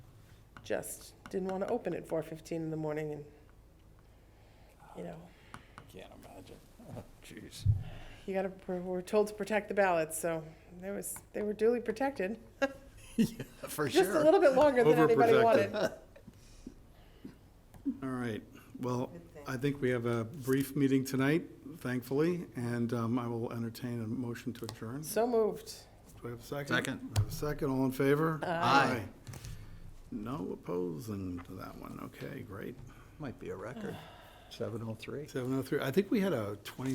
just didn't want to open at four fifteen in the morning and, you know, Can't imagine. Jeez. you gotta, pr- we're told to protect the ballots, so there was, they were duly protected. For Just a little bit longer than anybody Overprotected. wanted. All right, well, I think we have a brief meeting tonight, thankfully, and um, I will entertain a motion to adjourn. So moved. Do I have a second? Second. I have a second, all in favor? Aye. No opposing to that one, okay, great. Might be a record, 703. Seven oh three, I think we had a twenty